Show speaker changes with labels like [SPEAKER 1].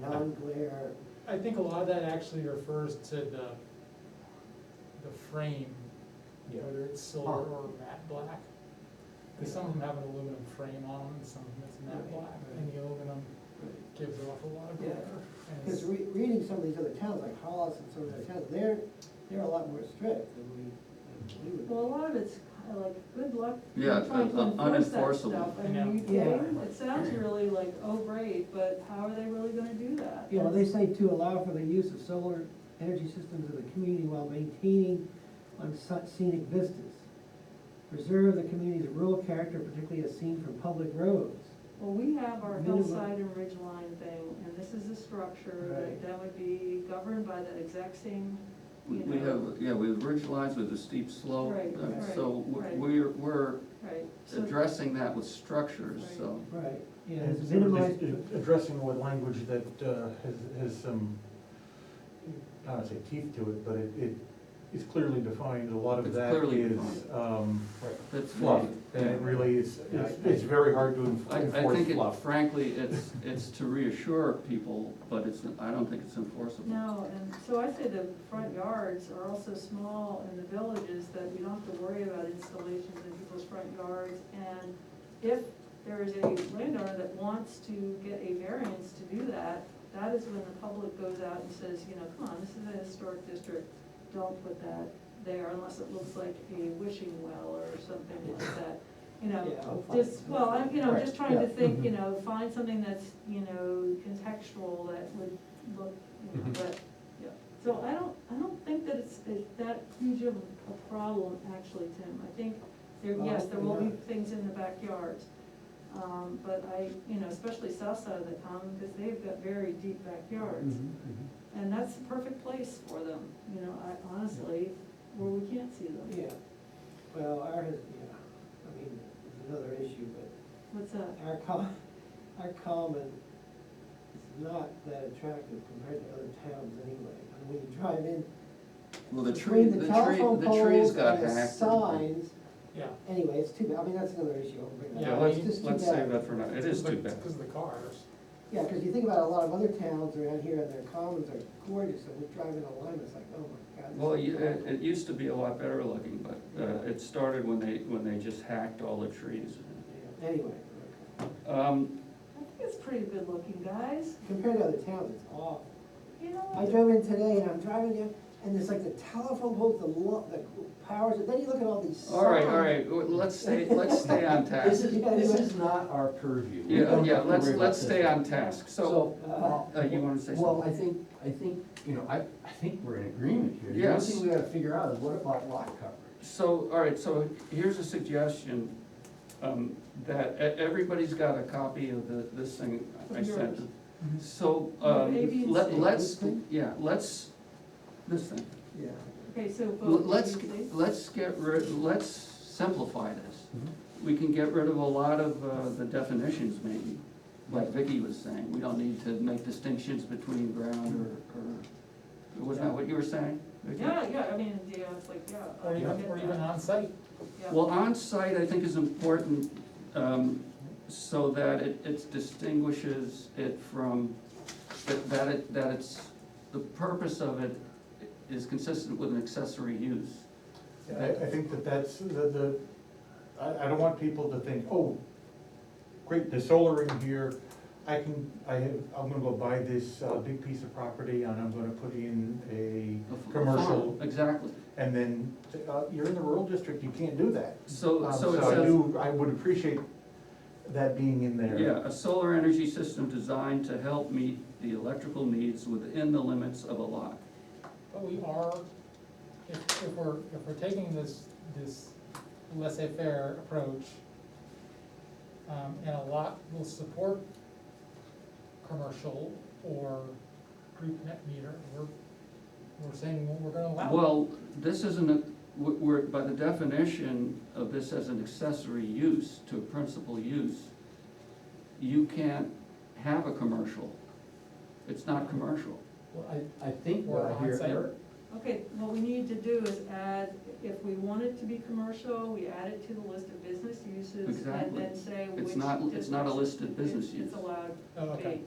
[SPEAKER 1] non-glare,
[SPEAKER 2] I think a lot of that actually refers to the, the frame, whether it's silver or matte black. Because some of them have an aluminum frame on them, and some of them it's matte
[SPEAKER 1] Right,
[SPEAKER 2] black, and the aluminum gives off a lot of glare.
[SPEAKER 1] Yeah.
[SPEAKER 2] and it's-
[SPEAKER 1] because re- reading some of these other towns, like Hollis and some of the other towns, they're, they're a lot more strict than we, than we
[SPEAKER 3] Well, a
[SPEAKER 1] would.
[SPEAKER 3] lot of it's kinda like, good luck.
[SPEAKER 4] Yeah,
[SPEAKER 3] trying to
[SPEAKER 4] uh,
[SPEAKER 3] enforce that
[SPEAKER 4] unenforceable.
[SPEAKER 3] stuff. I
[SPEAKER 2] Yeah.
[SPEAKER 3] mean, you
[SPEAKER 1] Yeah.
[SPEAKER 3] kidding? It sounds really like, oh, great, but how are they really gonna do that?
[SPEAKER 1] You know, they say to allow for the use of solar energy systems in the community while maintaining on such scenic vistas. Preserve the community's rural character, particularly as seen from public roads.
[SPEAKER 3] Well, we have our
[SPEAKER 1] Minimum.
[SPEAKER 3] hillside and ridgeline thing, and this is a structure
[SPEAKER 1] Right.
[SPEAKER 3] that, that would be governed by that exact same,
[SPEAKER 4] We
[SPEAKER 3] you
[SPEAKER 4] we
[SPEAKER 3] know.
[SPEAKER 4] have, yeah, we have ridge lines with a steep slope,
[SPEAKER 3] Right,
[SPEAKER 4] uh,
[SPEAKER 1] right,
[SPEAKER 4] so w-
[SPEAKER 3] right.
[SPEAKER 4] we're, we're
[SPEAKER 3] right? So-
[SPEAKER 4] addressing that with structures,
[SPEAKER 3] Right.
[SPEAKER 4] so.
[SPEAKER 1] Right. Yeah,
[SPEAKER 5] And
[SPEAKER 1] it's minimized,
[SPEAKER 5] it's Addressing it with language that uh, has, has some, I don't wanna say teeth to it, but it, it is clearly defined, a lot of
[SPEAKER 4] It's
[SPEAKER 5] that
[SPEAKER 4] clearly
[SPEAKER 5] is,
[SPEAKER 4] defined.
[SPEAKER 5] um,
[SPEAKER 4] That's
[SPEAKER 5] fluff. And
[SPEAKER 4] yeah.
[SPEAKER 5] it really is,
[SPEAKER 6] Yeah, I-
[SPEAKER 5] it's, it's very hard to
[SPEAKER 4] I,
[SPEAKER 5] enf-
[SPEAKER 4] I think
[SPEAKER 5] enforce
[SPEAKER 4] it-
[SPEAKER 5] fluff.
[SPEAKER 4] frankly, it's, it's to reassure people, but it's, I don't think it's enforceable.
[SPEAKER 3] No, and so I say the front yards are also small in the villages that you don't have to worry about installations in people's front yards. And if there is a landowner that wants to get a variance to do that, that is when the public goes out and says, you know, come on, this is a historic district, don't put that there unless it looks like a wishing well or something like that. You know, just, well, I'm, you know, just trying to
[SPEAKER 1] Right, mm-hmm.
[SPEAKER 3] think,
[SPEAKER 5] mhm.
[SPEAKER 3] you know, find something that's, you know, contextual that would look, you
[SPEAKER 1] Mm-hmm.
[SPEAKER 3] know,
[SPEAKER 5] Mhm.
[SPEAKER 3] but, yeah. So I don't, I don't think that it's, it's that huge of a problem, actually, Tim. I think there,
[SPEAKER 1] Well,
[SPEAKER 3] yes, there will be
[SPEAKER 1] yeah.
[SPEAKER 3] things in the backyards. Um, but I, you know, especially south side of the town, because they've got very deep backyards.
[SPEAKER 1] Mm-hmm,
[SPEAKER 3] And that's the perfect place for them, you know, I honestly, where we can't see them.
[SPEAKER 1] Yeah, well, our, yeah, I mean, it's another issue, but
[SPEAKER 3] What's that?
[SPEAKER 1] our com, our common is not that attractive compared to other towns anyway. And when you drive in,
[SPEAKER 4] Well, the tree,
[SPEAKER 1] between the
[SPEAKER 4] the tree,
[SPEAKER 1] telephone
[SPEAKER 4] the tree's
[SPEAKER 1] poles
[SPEAKER 4] got
[SPEAKER 1] and
[SPEAKER 4] hacked.
[SPEAKER 1] the signs,
[SPEAKER 2] Yeah.
[SPEAKER 1] anyway, it's too bad, I mean, that's another issue, I'll bring that
[SPEAKER 2] Yeah,
[SPEAKER 1] up.
[SPEAKER 2] let's-
[SPEAKER 1] It's just too
[SPEAKER 4] Let's
[SPEAKER 1] bad.
[SPEAKER 4] save that for now, it is too bad.
[SPEAKER 2] Because of the cars.
[SPEAKER 1] Yeah, because you think about a lot of other towns around here, and their commons are gorgeous, and we're driving on Lime, it's like, oh my god. this
[SPEAKER 4] Well,
[SPEAKER 1] is
[SPEAKER 4] you- it,
[SPEAKER 1] awful.
[SPEAKER 4] it used to be a lot better looking, but uh,
[SPEAKER 1] Yeah.
[SPEAKER 4] it started when they, when they just hacked all the trees.
[SPEAKER 1] Yeah, Anyway, okay.
[SPEAKER 4] Um,
[SPEAKER 3] I think it's pretty good looking, guys.
[SPEAKER 1] compared to other towns, it's awful.
[SPEAKER 3] You
[SPEAKER 1] I
[SPEAKER 3] know,
[SPEAKER 1] drove in today and I'm driving in, and there's like the telephone poles, the lo- the powers, and then you look at all these signs.
[SPEAKER 4] All right, all right, w- let's stay, let's stay on
[SPEAKER 6] This
[SPEAKER 4] task.
[SPEAKER 6] is, this is not our purview. We
[SPEAKER 4] Yeah,
[SPEAKER 6] don't
[SPEAKER 4] yeah,
[SPEAKER 6] have to
[SPEAKER 4] let's,
[SPEAKER 6] worry about
[SPEAKER 4] let's
[SPEAKER 6] this.
[SPEAKER 4] stay on task, so,
[SPEAKER 6] So,
[SPEAKER 4] uh, you wanna say
[SPEAKER 6] Well, I
[SPEAKER 4] something?
[SPEAKER 6] think, I think, you know, I, I think we're in agreement here.
[SPEAKER 4] Yes.
[SPEAKER 6] The only thing we gotta figure out is what about lot coverage?
[SPEAKER 4] so, all right, so here's a suggestion, um, that e- everybody's got a copy of the, this thing I
[SPEAKER 3] Of yours.
[SPEAKER 4] sent.
[SPEAKER 6] Mm-hmm.
[SPEAKER 4] So,
[SPEAKER 3] Of A, B,
[SPEAKER 4] um,
[SPEAKER 3] and
[SPEAKER 4] let,
[SPEAKER 3] C.
[SPEAKER 4] let's,
[SPEAKER 1] This thing?
[SPEAKER 4] yeah, let's, this thing.
[SPEAKER 1] Yeah.
[SPEAKER 3] okay, so
[SPEAKER 4] Well,
[SPEAKER 3] vote,
[SPEAKER 4] Let's,
[SPEAKER 3] please.
[SPEAKER 4] let's get rid, let's simplify this. We can get rid of a lot of uh, the definitions maybe, like Vicky was saying. We don't need to make distinctions between ground or, or, was that what you were saying? Vicky?
[SPEAKER 3] Yeah, yeah, I mean, yeah, it's like, yeah. I
[SPEAKER 2] Or even,
[SPEAKER 3] get
[SPEAKER 2] or
[SPEAKER 3] that.
[SPEAKER 2] even on site.
[SPEAKER 3] Yeah.
[SPEAKER 4] Well, on-site I think is important, um, so that it, it distinguishes it from, that, that it, that it's, the purpose of it is consistent with an accessory use.
[SPEAKER 5] Yeah, I, I think that that's, the, the, I, I don't want people to think, oh, great, there's solar in here, I can, I have, I'm gonna go buy this, uh, big piece of property and I'm gonna put in
[SPEAKER 4] A f-
[SPEAKER 5] a
[SPEAKER 4] a
[SPEAKER 5] commercial,
[SPEAKER 4] farm, Exactly.
[SPEAKER 5] and then, uh, you're in the rural district, you can't do that.
[SPEAKER 4] So,
[SPEAKER 5] Um,
[SPEAKER 4] so it
[SPEAKER 5] I
[SPEAKER 4] says.
[SPEAKER 5] do, I would appreciate that being in there.
[SPEAKER 4] Yeah, a solar energy system designed to help meet the electrical needs within the limits of a lot.
[SPEAKER 2] But we are, if, if we're, if we're taking this, this laissez-faire approach, um, and a lot will support commercial or group net meter, we're, we're saying we're gonna allow. it.
[SPEAKER 4] Well, this isn't a, we're- we're, by the definition of this as an accessory use to a principal use, you can't have a commercial. It's not commercial.
[SPEAKER 2] Well, I,
[SPEAKER 6] I think what I
[SPEAKER 2] Or
[SPEAKER 6] hear
[SPEAKER 2] onsite.
[SPEAKER 6] Eric,
[SPEAKER 3] Okay, what we need to do is add, if we want it to be commercial, we add it to the list of business uses and
[SPEAKER 4] Exactly.
[SPEAKER 3] then say which.
[SPEAKER 4] It's not, it's not a listed business
[SPEAKER 3] districts
[SPEAKER 4] use.
[SPEAKER 3] It's allowed
[SPEAKER 2] Oh,
[SPEAKER 3] to
[SPEAKER 2] okay.
[SPEAKER 3] be.